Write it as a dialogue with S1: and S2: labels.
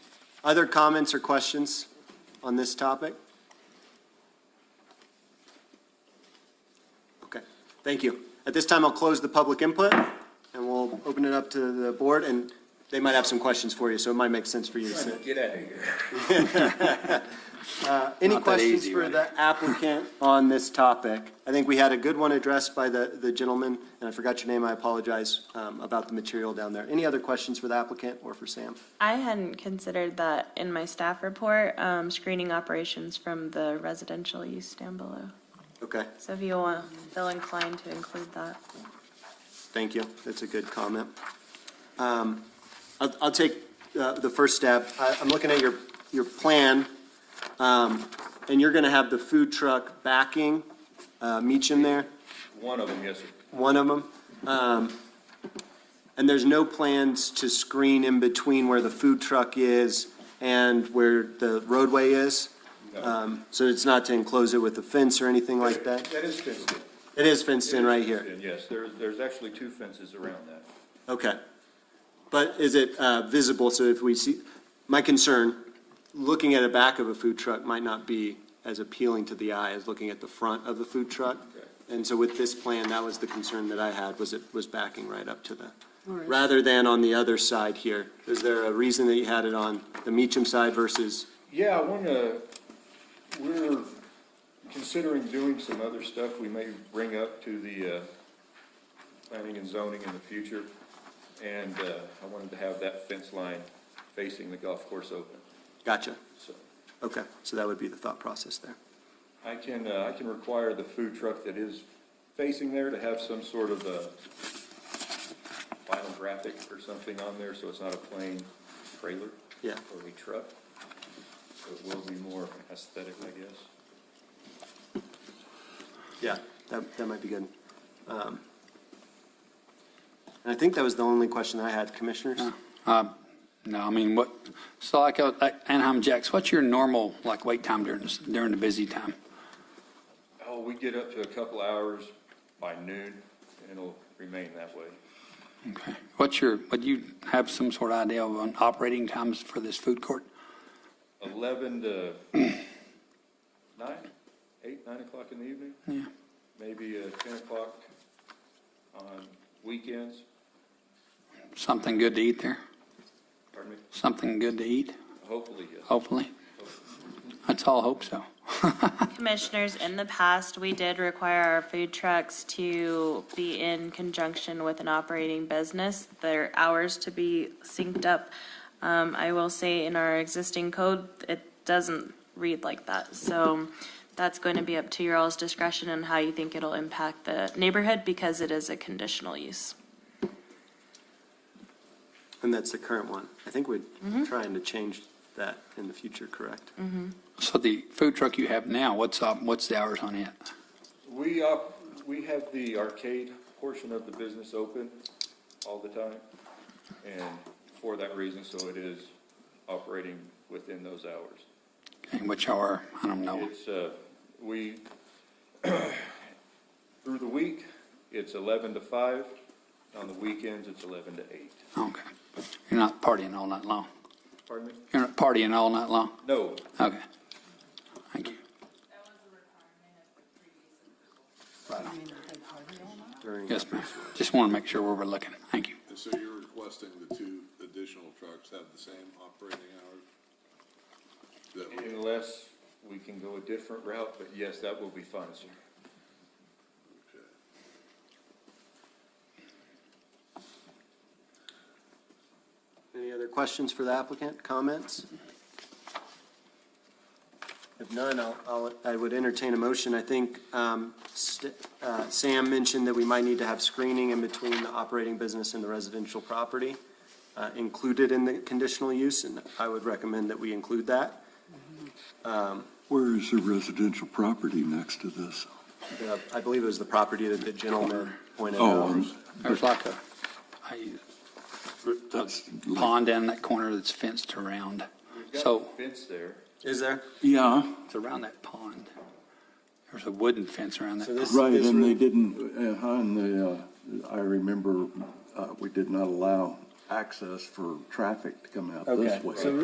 S1: Other comments or questions on this topic? Okay, thank you. At this time, I'll close the public input, and we'll open it up to the board, and they might have some questions for you, so it might make sense for you to sit.
S2: Get out of here.
S1: Any
S2: Not that
S1: questions
S2: easy,
S1: for
S2: right?
S1: the applicant on this topic? I think we had a good one addressed by the, the gentleman, and I forgot your name, I apologize, um, about the material down there. Any other questions for the applicant or for Sam?
S3: I hadn't considered that in my staff report, um, screening operations from the residential use down below.
S1: Okay,
S3: So if you want, feel inclined to include that.
S1: thank you, that's a good comment. Um, I'll, I'll take, uh, the first step. I, I'm looking at your, your plan, um, and you're gonna have the food truck backing, uh, meets in there?
S2: One of them, yes, sir.
S1: one of them. Um, and there's no plans to screen in between where the food truck is and where the roadway is?
S2: No.
S1: Um, so it's not to enclose it with a fence or anything like that?
S2: That is fenced in.
S1: It is fenced in right here,
S2: Yes, there's, there's actually two fences around that.
S1: okay. But is it, uh, visible, so if we see, my concern, looking at the back of a food truck might not be as appealing to the eye as looking at the front of the food truck?
S2: Okay.
S1: And so with this plan, that was the concern that I had, was it was backing right up to the, rather than on the other side here. Is there a reason that you had it on the Meacham side versus,
S2: Yeah, I want to, we're considering doing some other stuff we may bring up to the uh, planning and zoning in the future. And uh, I wanted to have that fence line facing the golf course open.
S1: gotcha,
S2: So
S1: okay, so that would be the thought process there.
S2: I can, uh, I can require the food truck that is facing there to have some sort of a vinyl graphic or something on there, so it's not a plain trailer.
S1: Yeah.
S2: Or a truck. So It will be more aesthetic, I guess.
S1: Yeah, that, that might be good. Um, And I think that was the only question I had, commissioners?
S4: No, I mean, what, so like uh, like Anaheim Jacks, what's your normal, like, wait time during, this- during the busy time?
S2: Oh, we get up to a couple hours by noon, and it'll remain that way.
S4: Okay. What's your, would you have some sort of idea of on operating times for this food court?
S2: Eleven to nine, eight, nine o'clock in the evening?
S4: Yeah.
S2: Maybe uh, ten o'clock on weekends,
S4: Something good to eat there?
S2: pardon me,
S4: Something good to eat,
S2: hopefully, yes.
S4: hopefully? Let's all hope so.
S3: Commissioners, in the past, we did require our food trucks to be in conjunction with an operating business, their hours to be synced up. Um, I will say in our existing code, it doesn't read like that. So that's going to be up to your all's discretion and how you think it'll impact the neighborhood because it is a conditional use.
S1: And that's the current one. I think we're trying to change that in the future, correct?
S4: So the food truck you have now, what's, up? what's the hours on it?
S2: We, op- we have the arcade portion of the business open all the time, and for that reason, so it is operating within those hours.
S4: And which hour, I don't know.
S2: It's, uh, we, through the week, it's eleven to five, on the weekends, it's eleven to eight.
S4: Okay. You're not partying all night long?
S2: Pardon me?
S4: You're not partying all night long?
S2: No,
S4: Okay. Thank you. Right on.
S1: During-
S4: Yes, ma'am. Just want to make sure where we're looking. Thank you.
S5: And so you're requesting the two additional trucks have the same operating hours? That we-
S2: unless we can go a different route, but yes, that will be fine, sir.
S5: okay.
S1: Any other questions for the applicant, comments? If none, I'll- I'll, I would entertain a motion. I think um, St- uh, Sam mentioned that we might need to have screening in between the operating business and the residential property uh, included in the conditional use, and I would recommend that we include that. Um,
S6: Where is the residential property next to this?
S1: Uh, I believe it was the property that the gentleman pointed out.
S6: Oh, um,
S4: There's like a, a-
S6: that's,
S4: a pond down in that corner that's fenced around.
S2: We've got
S4: So
S2: Fence there,
S1: Is there?
S6: yeah,
S4: it's around that pond. There's a wooden fence around
S1: So
S4: that.
S1: this-
S6: right,
S1: this
S6: and they
S1: room-
S6: didn't, uh, and the, uh, I remember, uh, we did not allow access for traffic to come out
S1: Okay,
S6: this way.
S1: so